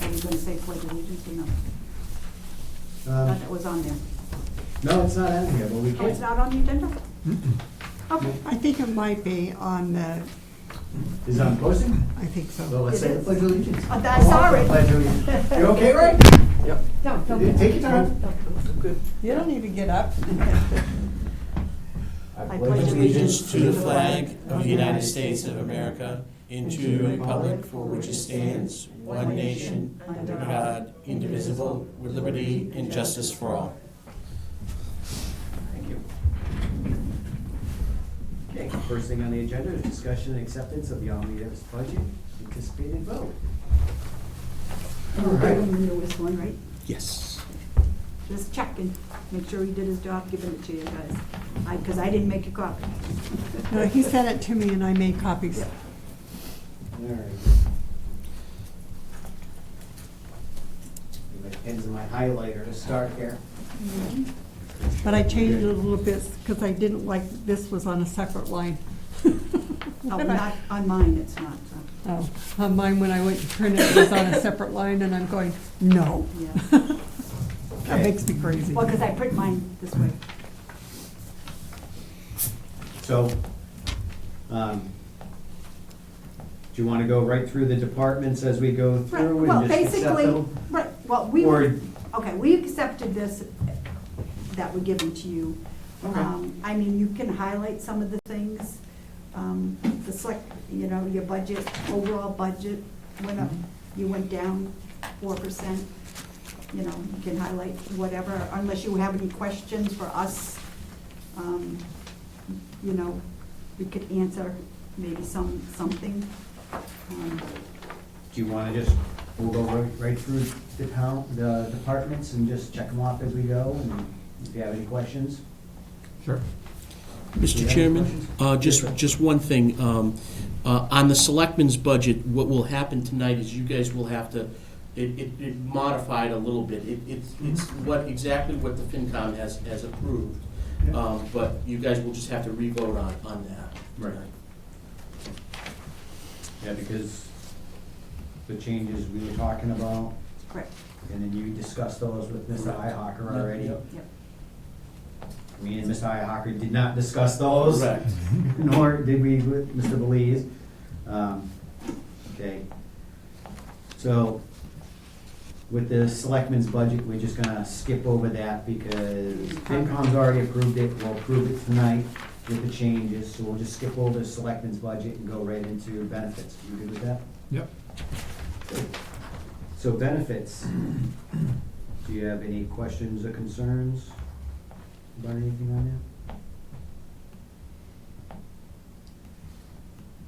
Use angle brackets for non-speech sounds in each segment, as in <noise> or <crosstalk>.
gonna say pledge allegiance or no? Thought Um, that was on there. No, it's not on here, but we Oh, it's can. not on the agenda? Okay, I think it might be on the, Is it on posting? I think So so. let's say the pledge of allegiance. Oh, that's I want all right. the Pledge of allegiance. <laughs> You okay, Ray? Yep. don't, Yeah, don't. Take your time. You don't need to get up. I pledge allegiance to the flag of the United States of America and to the republic for which it stands, one nation, under God, indivisible, with liberty and justice for all. Thank you. Okay, first thing on the agenda is discussion and acceptance of the omnibus budget anticipated vote. All Give right. him the newest one, right? Yes. Just checking, make sure he did his job, giving it to you guys. I, because I didn't make a copy. No, he sent it to me and I made copies. All right. My pen's in my highlighter to start here. But I changed it a little bit because I didn't like, this was on a separate line. <laughs> Oh, not on mine, it's not, so, <laughs> Oh, on mine, when I went to print it, it was on a separate line and I'm going, no. yeah. <laughs> That makes me crazy. Well, because I print mine this way. So, um, do you want to go right through the departments as we go Right, through well, and just accept basically, them? right, well, we, Or- okay, we accepted this, that were given to you. Okay. Um, I mean, you can highlight some of the things, um, the select, you know, your budget, overall budget went up, Mm-hmm. you went down four percent. You know, you can highlight whatever, unless you have any questions for us, um, you know, we could answer maybe some, something. Um, Do you want to just, we'll go right, right through the town, the departments and just check them off as we go? And if you have any questions? Sure. Do you Mr. have any Chairman, questions? uh, Yes, just, sir. just one thing. um, uh, On the selectmen's budget, what will happen tonight is you guys will have to, it, it- it modified a little bit. It- It's, it's what, exactly what the FinCom has, has approved. Yeah. Um, But you guys will just have to re-vote on, on that. Right. tonight. Yeah, because the changes we were talking about, Correct, and then you discussed those with Mr. Correct. Ihawker already. Yep. yep. Me and Mr. Ihawker did not discuss those. Correct. <laughs> nor did we with Mr. Belize. Um, Okay. So with the selectmen's budget, we're just gonna skip over that because FinCom's already approved it, we'll approve it tonight with the changes, so we'll just skip over the selectmen's budget and go right into benefits. You good with that? Yep. So benefits, do you have any questions or concerns about anything on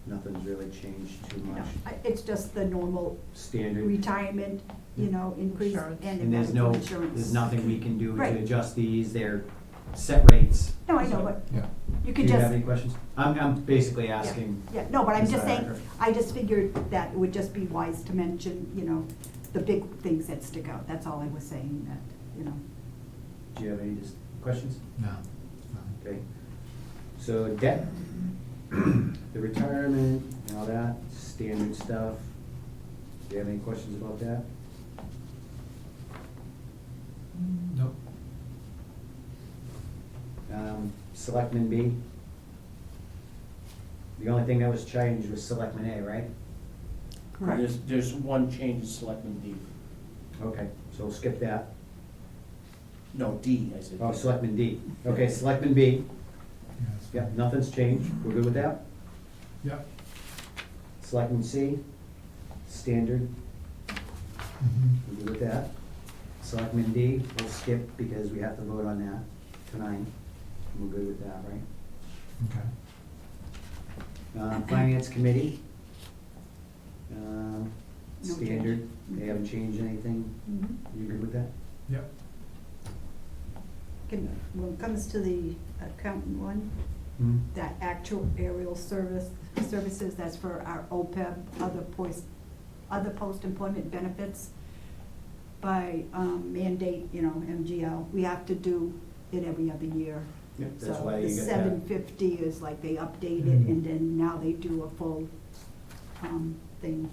that? Nothing's really changed too No, much, I- It's just the normal standard, retirement, you know, increase and Insurance. the and there's no, medical insurance. there's nothing we can do Right. to adjust these, they're set rates. No, I know, So, but Yeah. you Do could you have just, any questions? I'm, I'm basically yeah, asking, yeah, no, but I'm Ms. just saying, Iacocca. I just figured that it would just be wise to mention, you know, the big things that stick out, that's all I was saying, that, you know. do you have any just questions? No. Okay, so debt, <clears throat> the retirement and all that, standard stuff. Do you have any questions about that? Nope. Um, Selectman B? The only thing that was changed was Selectman A, right? Correct. There's, there's one change in Selectmen D. Okay, so we'll skip that. No, D, I said. Oh, Selectman D. Okay, Selectman B. Yes. Yep, nothing's changed. We're good with that? Yep. Selectman C? Standard. Mhm. We'll do with that. Selectmen D, we'll skip because we have to vote on that tonight. We're good with that, right? Okay. Uh, Finance Committee. um, No change. Standard, they haven't changed anything. Mhm. You good with that? Yep. Can, when it comes to the accountant one, that actual aerial service, services, that's for our OPEB, other post, other post-employment benefits. By um, mandate, you know, MGL, we have to do it every other year. Yep, So that's why you The get seven that. Mm-hmm. fifty is like they update it, and then now they do a full, um, thing